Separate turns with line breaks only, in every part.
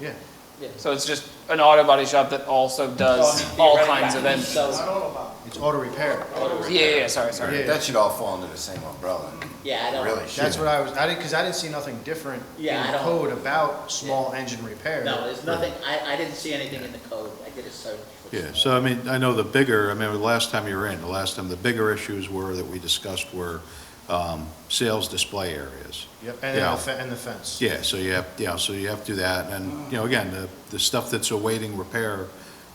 Yeah.
So it's just an auto body shop that also does
Oh,
all kinds of engines.
So,
It's auto repair.
Yeah, yeah, yeah, sorry, sorry.
Yeah.
That should all fall under the same umbrella.
Yeah, I don't-
Really
That's
should.
what I was, I didn't, because I didn't see nothing different in
Yeah, I don't-
code about small engine repair.
no, there's nothing, I, I didn't see anything in the code, I did a search. for-
Yeah, so I mean, I know the bigger, I mean, the last time you were in, the last time, the bigger issues were, that we discussed were um, sales display areas.
Yep, and then
Yeah.
the fe- and the fence.
Yeah, so you have, yeah, so you have to do that, and, you know, again, the, the stuff that's awaiting repair,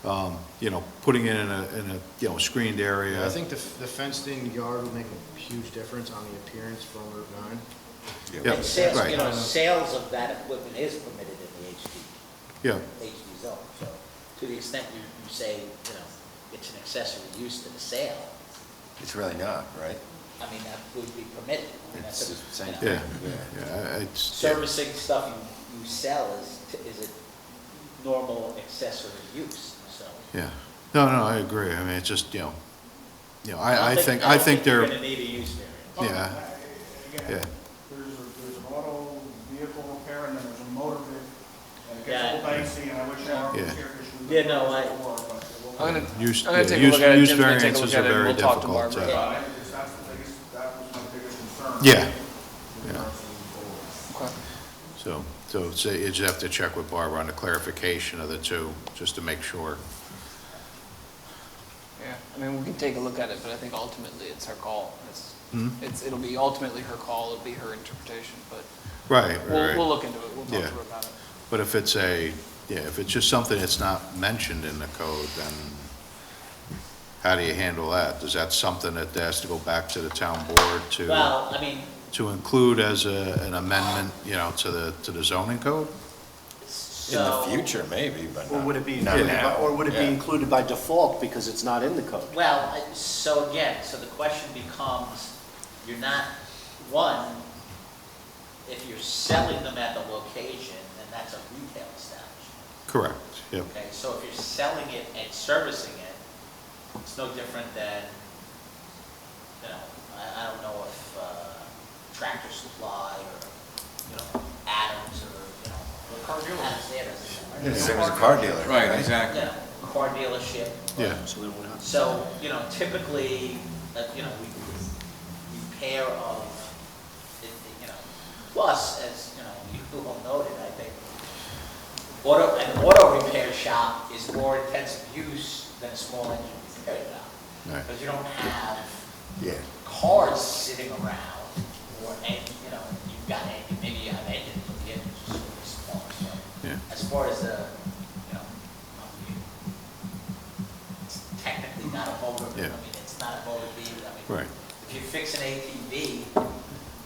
um, you know, putting it in a, in a, you know, screened
I
area.
think the, f- the fenced in yard would make a huge difference on the appearance from Route nine.
Yeah,
And sales, you
right.
know, sales of that equipment is permitted in the HD,
Yeah,
HD zone, so to the extent you, you say, you know, it's an accessory use to the sale,
It's really not, right?
I mean, that would be permitted. I mean, that's
It's
a-
the same
you know,
thing.
yeah, yeah, it's, yeah,
Servicing stuff you, you sell is, t- is a normal accessory use, so.
yeah. No, no, I agree, I mean, it's just, you know, you know,
don't
I, I think,
don't
I think
You're
they're,
gonna need a use variance.
yeah,
Again,
yeah.
There's, a- there's an auto vehicle repair and then there's a motor vehicle. And it
Yeah.
gets a little dicey and I wish I were
Yeah.
here because we.
Yeah, no, I-
I'm gonna,
Use-
I'm gonna
yeah,
take a
use-
look at it,
use
Jim's gonna take a look
variances
at
are
it, and
very
we'll talk to
difficult to-
Barbara.
But it's- that's the biggest, that was my biggest concern.
Yeah.
In
Yeah.
regards to the
Okay.
So, so it's- you just have to check with Barbara on the clarification of the two, just to make sure.
Yeah, I mean, we can take a look at it, but I think ultimately it's her call. It's,
Hmm?
it's, it'll be ultimately her call, it'll be her interpretation, but we'll,
Right, right,
we'll
right.
look into it, we'll
Yeah.
talk to her about it.
But if it's a, yeah, if it's just something that's not mentioned in the code, then how do you handle that? Is that something that has to go back to the town board to,
Well, I mean,
to include as a, an amendment, you know, to the, to the zoning code?
In the
so.
future, maybe, but
Or would it be,
not, not
included by-
now.
or would it be
Yeah.
included by default because it's not in the code?
Well, I- so again, so the question becomes, you're not, one, if you're selling them at the location, then that's a retail establishment,
Correct, yep,
okay? So if you're selling it and servicing it, it's no different than, you know, I, I don't know if uh, Tractor Supply or, you know, Adams or, you know,
Car dealer.
Adams, yeah, that's-
Same as a car dealer,
Right,
right?
you
exactly.
know, car dealership,
yeah,
So then we're not.
so, you know, typically, uh, you know, we, we pair of, it- it, you know, plus, as, you know, you all noted, I think, auto, an auto repair shop is more intensive use than a small engine repair shop.
Right.
Because you don't have
Yeah.
cars sitting around, or, and, you know, you've got, en- maybe you have engines, but the engines are sort of small, so.
Yeah.
As far as the, you know, I mean, it's technically not a motor, I
Yeah.
mean, it's not a motor vehicle, I mean.
right,
If you fix an ATV,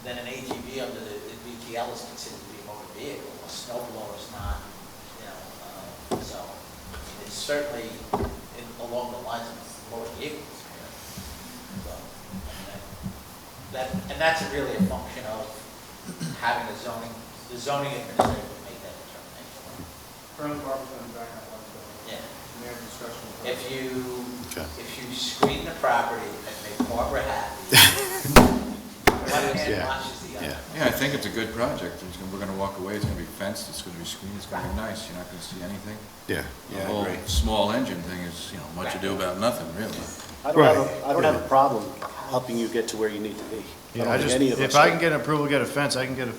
then an ATV under the, the BTL is considered to be a motor vehicle, a snowblower is not, you know, uh, so, it's certainly in- along the lines of motor vehicles. you know. So, and That, that- and that's really a function of having the zoning, the zoning administrator make that determination.
Currently, Barbara's gonna back up on that.
Yeah.
We have a discussion. with her.
If you,
Okay.
if you screen the property and make Barbara happy, one hand
Yeah,
washes the other.
yeah.
Yeah, I think it's a good project. It's gonna- We're gonna walk away, it's gonna be fenced, it's gonna be screened, it's gonna be nice, you're not gonna see anything.
yeah.
Yeah, I
The
agree.
whole small engine thing is, you know, much ado about nothing, really.
I don't have,
Right.
a- I don't have a problem helping you get to where you need to be. I
Yeah, I
don't think
just,
any of us.
if I
do.
can get an approval, to get a fence, I can get a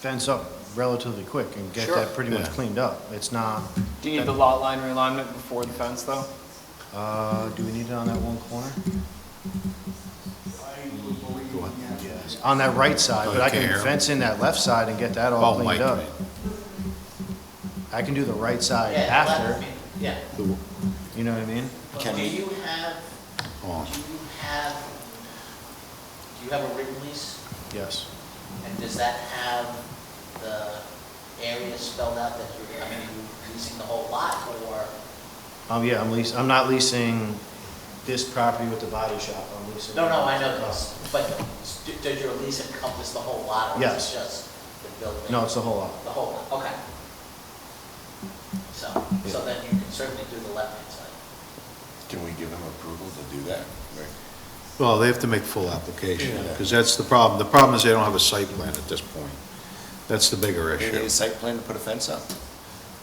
fence up relatively quick and get that pretty much
Yeah.
cleaned up. It's not,
Do you need the lot line realignment before the fence, though?
uh, do we need it on that one corner?
I would believe, yeah.
On that right side, but I can
Okay.
fence in that left side and get that all
Oh, Mike,
cleaned up.
right.
I can do the right side
Yeah, well, I
after,
mean, Yeah.
you know what I mean?
But
Can
do
we-
you have,
Oh.
do you have, do you have a written lease?
Yes.
And does that have the area spelled out that you're, I mean, are you leasing the whole lot or?
Um, yeah, I'm leasing, I'm not leasing this property with the body shop, I'm leasing.
No, no, I know this, but do- does your lease encompass the whole lot or
Yes.
is it just the building?
No, it's the whole lot.
The whole lot, okay. So, so then you can certainly do the left-hand side.
Can we give them approval to do that? Right.
Well, they have to make full application,
Yeah.
because that's the problem. The problem is they don't have a site plan at this point. That's the bigger
They need
issue.
a site plan to put a fence up.